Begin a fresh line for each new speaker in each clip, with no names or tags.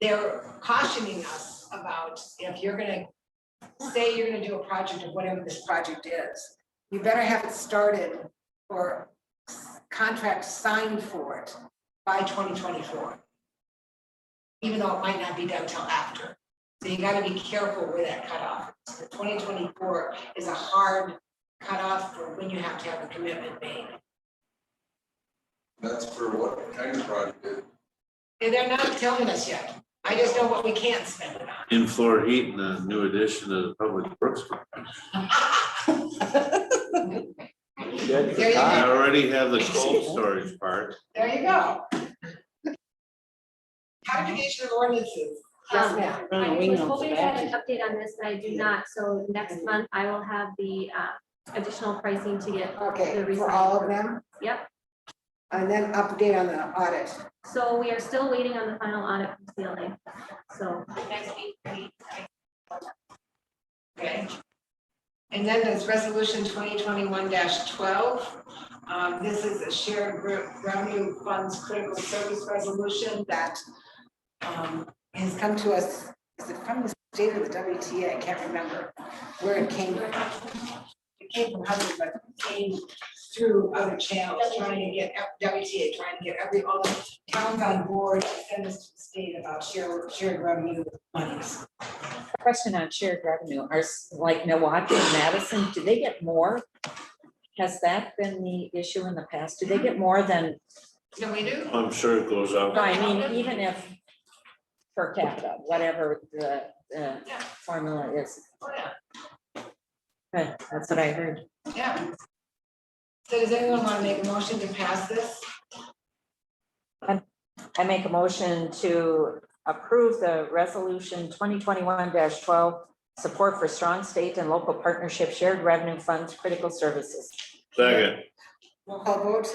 they're cautioning us about if you're gonna say you're gonna do a project of whatever this project is, you better have it started or contract signed for it by twenty twenty-four. Even though it might not be done till after. So you gotta be careful where that cutoff is. Twenty twenty-four is a hard cutoff for when you have to have a commitment made.
That's for what kind of project?
And they're not telling us yet. I just know what we can't spend it on.
in Florida heat and a new addition to the public works. Department.
There you
I
go.
already have the cold storage part.
There you go. Codification of ordinances. Yes,
Um,
ma'am.
I
we
was
know
hoping
the
to have an update on this, but I do not, so next month I will have the uh, additional pricing to get. the
Okay, for
resign.
all of them?
Yep.
And then update on the audit.
So we are still waiting on the final audit from CLA, so next week. we-
Okay. And then there's resolution twenty twenty-one twelve. Um, this is a shared re- revenue funds critical service resolution that um, has come to us, is it from the state or the WTA? I can't remember where it came from. It came from Hudson, but it came through other channels, trying to get ev- WTA, trying to get every, all the towns on board and send this to the state about shared, shared revenue monies.
Question on shared revenue, are s- like Milwaukee and Madison, do they get more? Has that been the issue in the past? Do they get more than,
No, we do?
I'm sure it goes
no,
up.
I mean, even if per capita, whatever the, the formula is,
Oh, yeah.
but that's what I heard.
Yeah. So does anyone want to make a motion to pass this?
I make a motion to approve the resolution twenty twenty-one twelve, support for strong state and local partnership shared revenue funds critical services.
Second,
Roll call vote?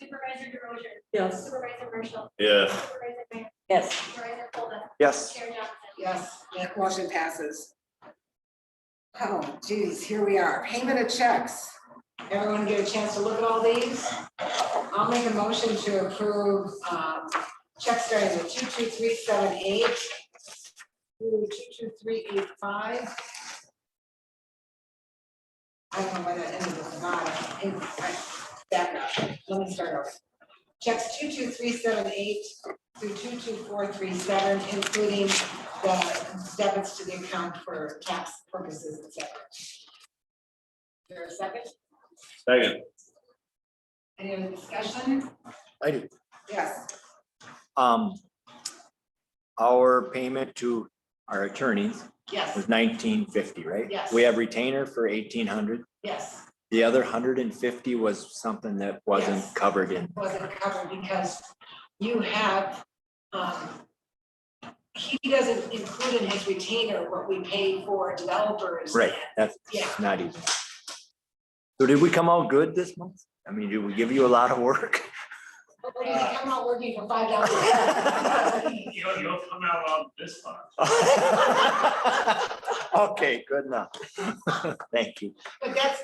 Supervisor DeRozier.
Yes.
Supervisor Marshall.
yeah,
Supervisor Mayor.
Yes,
Supervisor Fulda.
Yes.
Chair Johnson.
Yes, that motion passes. Oh geez, here we are, payment of checks. Everyone get a chance to look at all these? I'll make a motion to approve um, check starting with two two three seven eight through two two three eight five. I don't know why that ended at the bottom. It- I- Back up, let me start over. Checks two two three seven eight through two two four three seven, including the debits to the account for tax purposes, et cetera. Is There a second?
second,
Any other discussion?
I do.
Yes.
Um, our payment to our attorneys
Yes,
was nineteen fifty, right?
Yes.
We have retainer for eighteen hundred.
yes,
The other hundred and fifty was something that wasn't
Yes.
covered in.
wasn't covered because you have, um, he doesn't include in his retainer what we pay for developers.
Right, that's
Yeah.
not even. So did we come out good this month? I mean, did we give you a lot of work?
But he's come out working for five dollars.
You'll, you'll come out on this one.
Okay, good enough. Thank you.
But that's,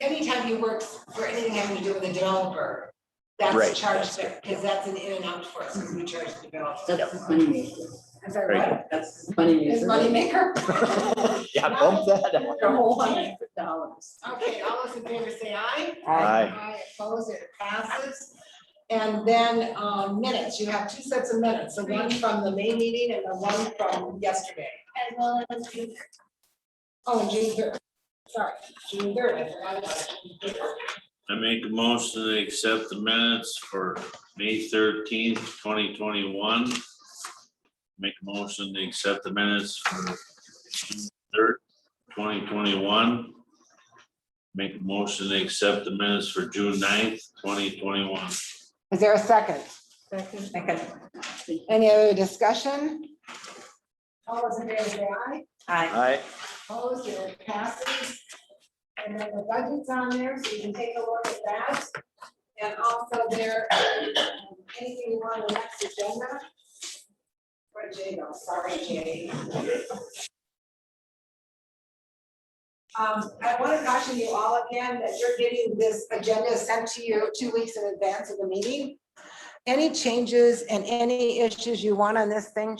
anytime you work for anything having to do with a developer,
Right,
that's charged there, because that's an in and out for us, because we charge developers.
That's his moneymaker.
Is that
Right.
right?
That's his moneymaker.
His moneymaker?
Yeah, bump that up.
A whole hundred dollars.
Okay, all those in favor say aye.
I,
Aye.
I oppose it passes. And then um, minutes, you have two sets of minutes, the one from the May meeting and the one from yesterday.
As well as you.
Oh, and June third, sorry, June third, I forgot about June third.
I make a motion to accept the minutes for May thirteenth, twenty twenty-one. Make a motion to accept the minutes for June third, twenty twenty-one. Make a motion to accept the minutes for June 9th, twenty twenty-one.
Is there a second?
second,
Any other discussion? All those in favor say aye.
I.
Aye.
Opposed, it passes. And then the budget's on there, so you can take a look at that. And also there, um, anything you want on the next agenda? Where Jay go? Sorry, Jay. Um, I want to caution you all again that you're getting this agenda sent to you two weeks in advance of the meeting. any changes and any issues you want on this thing,